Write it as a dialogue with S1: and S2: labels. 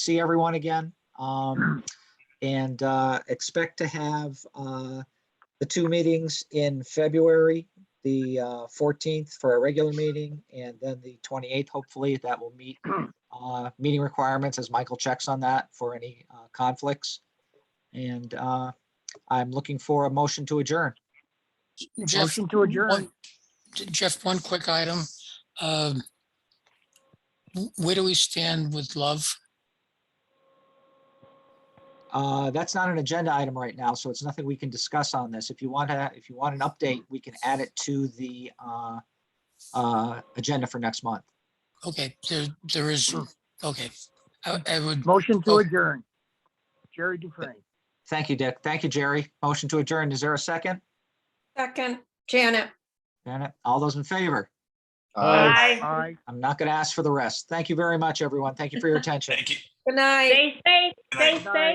S1: see everyone again. Um, and, uh, expect to have, uh, the two meetings in February, the, uh, fourteenth for a regular meeting and then the twenty-eighth, hopefully that will meet, uh, meeting requirements as Michael checks on that for any, uh, conflicts. And, uh, I'm looking for a motion to adjourn.
S2: Jeff,
S3: Motion to adjourn.
S2: one- Jeff, one quick item. Um, wh- Where do we stand with love?
S1: Uh, that's not an agenda item right now, so it's nothing we can discuss on this. If you want to, if you want an update, we can add it to the, uh, uh, agenda for next month.
S2: Okay, there, there is, okay. I, I would,
S3: Motion to
S2: Oh.
S3: adjourn. Jerry Dufresne.
S1: Thank you, Dick. Thank you, Jerry. Motion to adjourn. Is there a second?
S4: Second, Janet.
S1: Janet, all those in favor?
S5: Aye.
S3: Aye.
S1: I'm not going to ask for the rest. Thank you very much, everyone. Thank you for your attention.
S5: Thank you.
S4: Good night.
S6: Stay safe,
S5: Good night.
S6: stay safe.